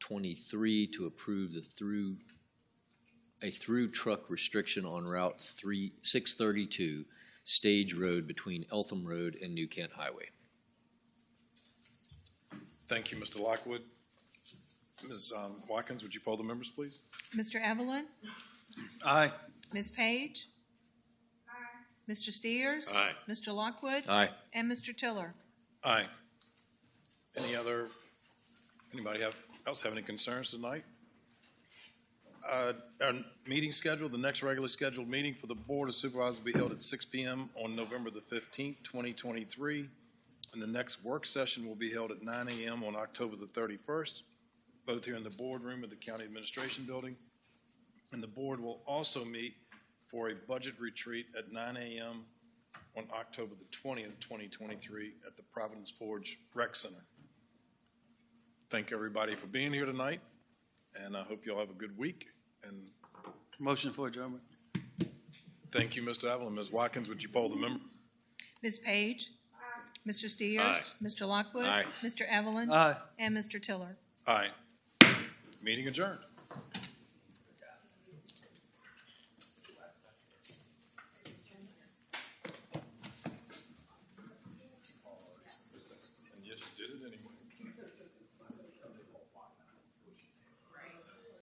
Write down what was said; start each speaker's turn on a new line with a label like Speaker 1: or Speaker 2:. Speaker 1: twenty-three to approve the through, a through truck restriction on Route three, six thirty-two, Stage Road between Eltham Road and New Kent Highway.
Speaker 2: Thank you, Mr. Lockwood. Ms. um, Watkins, would you poll the members, please?
Speaker 3: Mr. Evelyn?
Speaker 4: Aye.
Speaker 3: Ms. Page? Aye. Mr. Steers?
Speaker 2: Aye.
Speaker 3: Mr. Lockwood?
Speaker 1: Aye.
Speaker 3: And Mr. Tiller?
Speaker 2: Aye. Any other, anybody have, else have any concerns tonight? Uh, Our meeting schedule, the next regularly scheduled meeting for the Board of Supervisors will be held at six PM on November the fifteenth, twenty twenty-three. And the next work session will be held at nine AM on October the thirty-first, both here in the boardroom of the County Administration Building. And the board will also meet for a budget retreat at nine AM on October the 20th, 2023, at the Providence Forge Rec Center. Thank everybody for being here tonight, and I hope you all have a good week. And
Speaker 4: Motion for adjournment.
Speaker 2: thank you, Mr. Evelyn. Ms. Watkins, would you poll the member?
Speaker 3: Ms. Page? Mr. Steers? Mr. Lockwood?
Speaker 1: Aye.
Speaker 4: Uh,
Speaker 3: Mr. Evelyn?
Speaker 4: Aye.
Speaker 3: And Mr. Tiller?
Speaker 2: Aye. Meeting adjourned.